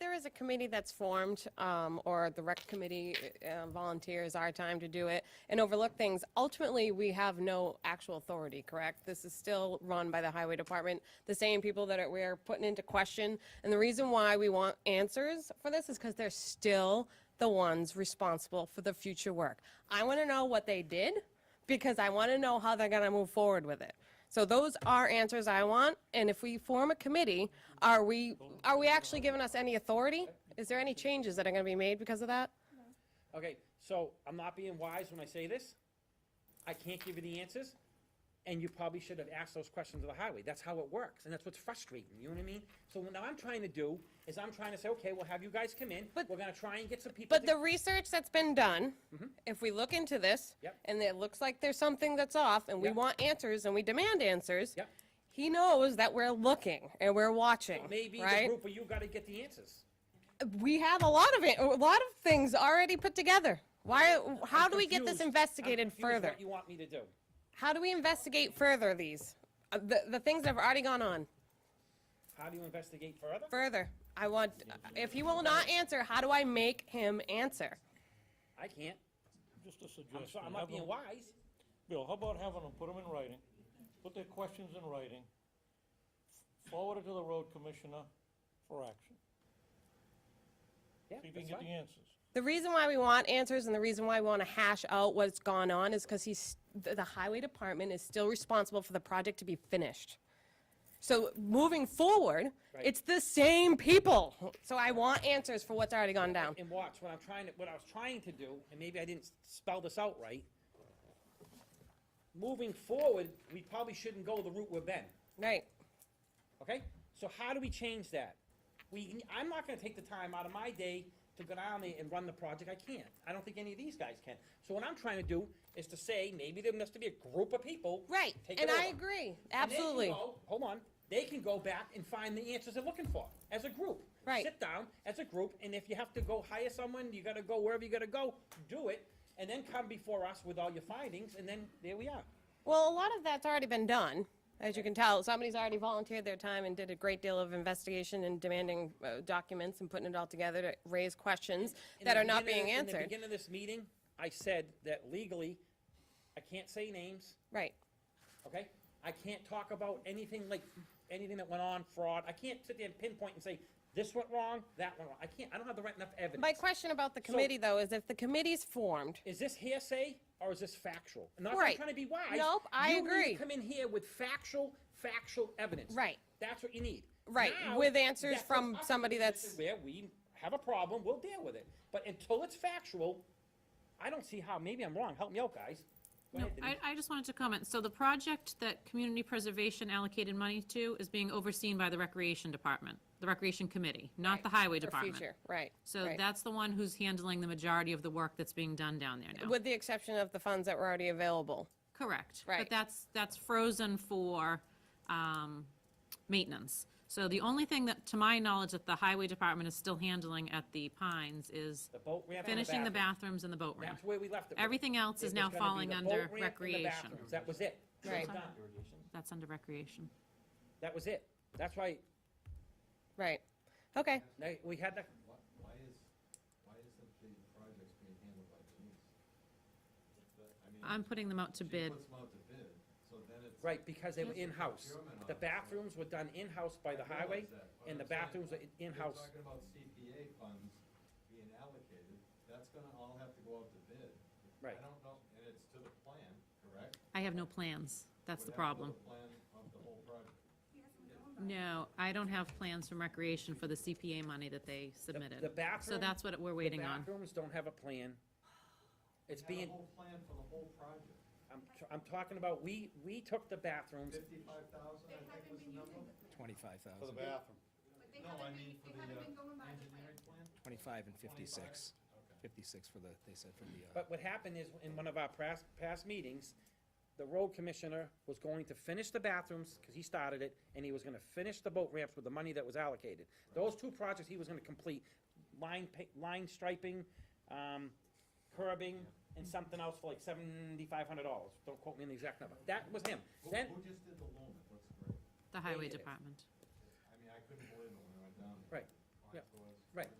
there's a committee that's formed, um, or the rec committee uh, volunteers our time to do it and overlook things, ultimately, we have no actual authority, correct? This is still run by the highway department, the same people that are- we're putting into question. And the reason why we want answers for this is because they're still the ones responsible for the future work. I want to know what they did because I want to know how they're going to move forward with it. So those are answers I want, and if we form a committee, are we, are we actually giving us any authority? Is there any changes that are gonna be made because of that? Okay, so I'm not being wise when I say this. I can't give you the answers, and you probably should have asked those questions of the highway. That's how it works, and that's what's frustrating, you know what I mean? So what I'm trying to do is I'm trying to say, okay, we'll have you guys come in, But- we're gonna try and get some people. But the research that's been done, if we look into this, Mm-hmm. Yep. and it looks like there's something that's off, and we Yep. want answers, and we demand answers, Yep. he knows that we're looking and we're watching, Maybe the right? group of you gotta get the answers. We have a lot of it, a lot of things already put together. Why, how I'm do we get this confused. I'm investigated confused further? What you want me to do? How do we investigate further these, Uh, the, the things that have already gone on? How do you investigate further? Further, I want, if he will not answer, how do I make him answer? I can't. Just a I'm suggestion. sorry, I'm Have not being them- wise. Bill, how about having them put them in writing, put their questions in writing, forward it to the road commissioner for action. Yeah, See if you can that's get the fine. answers. The reason why we want answers and the reason why we want to hash out what's gone on is because he's, the the highway department is still responsible for the project to be finished. So moving forward, Right. it's the same people. So I want answers for what's already gone down. And watch, what I'm trying to, what I was trying to do, and maybe I didn't spell this out right. Moving forward, we probably shouldn't go the route we've been, Right. okay? So how do we change that? We, I'm not gonna take the time out of my day to go down there and run the project, I can't. I don't think any of these guys can. So what I'm trying to do is to say, maybe there must be a group of people. Right. Take it And I over. agree. And they can Absolutely. go- Hold on, they can go back and find the answers they're looking for, as a group. Right. Sit down as a group, and if you have to go hire someone, you gotta go wherever you gotta go, do it, and then come before us with all your findings, and then there we are. Well, a lot of that's already been done, as you can tell. Somebody's already volunteered their time and did a great deal of investigation and demanding uh, documents and putting it all together to raise questions In that the are not beginning- being In the answered. beginning of this meeting, I said that legally, I can't say names, Right. okay? I can't talk about anything like, anything that went on, fraud, I can't sit there and pinpoint and say, this went wrong, that went wrong, I can't, I don't have the right enough evidence. My question about the committee, though, is if the committee's formed, is this hearsay or is this factual? Not that I'm Right. trying to be wise. Nope, I You need agree. to come in here with factual, factual evidence. Right. That's what you need. Right, Now, with answers that puts from us in a somebody that's- position Where we have a problem, we'll deal with it. But until it's factual, I don't see how, maybe I'm wrong, help me out, guys. Go No, ahead, Denise. I, I just wanted to comment. So the project that community preservation allocated money to is being overseen by the Recreation Department, the Recreation Committee, not the Highway for Department. future, right. So right. that's the one who's handling the majority of the work that's being done down there now. With the exception of the funds that were already available. Correct. Right. But that's, that's frozen for um, maintenance. So the only thing that, to my knowledge, that the Highway Department is still handling at the Pines is The boat ramp and finishing the bathrooms and the boat ramp. That's where we left it. with it. Everything else It is was now gonna be falling the under boat ramp and the recreation. bathrooms. That was it. That was Right. done. That's under recreation. That was it. That's why, Right. Okay. they- we had that, Why, why is, why isn't the projects being handled by Denise? But, I mean, I'm putting them out to She bid. puts them out to bid, so then it's. Right, because they were in-house. Procurement The officer. bathrooms were done in-house by the uh, I realize highway, that, but and the I'm saying, bathrooms are you're in-house. Talking about CPA funds being allocated, that's gonna all have to go out to bid. Right. I don't know, and it's to the plan, correct? I have no plans. That's the What happened problem. to the plan of the whole project? No, I don't have plans from recreation for the CPA money that they submitted. the bathroom- So that's what we're waiting on. Bathrooms don't have a plan. It's Had being, a whole plan for the whole project, I'm, t- I'm talking about, we, we took the bathrooms, fifty-five thousand, I think was the number? Twenty-five For the thousand, bathroom, No, I mean for the, uh, engineering plan? twenty-five and fifty-six. Fifty-six for the, they said for the, uh, but what happened is, in one of our past, past meetings, the road commissioner was going to finish the bathrooms, because he started it, and he was gonna finish the boat ramps with the money that was allocated. Those two projects he was gonna complete, line, pa- line striping, um, curbing, and something else for like seventy-five hundred dollars. Don't quote me on the exact number. That was him. Who, Then, who just did the loan? It looks great. The highway did it. department. I mean, I couldn't believe it when I went down. there. Right. Well, I Yeah, Afterwards. right.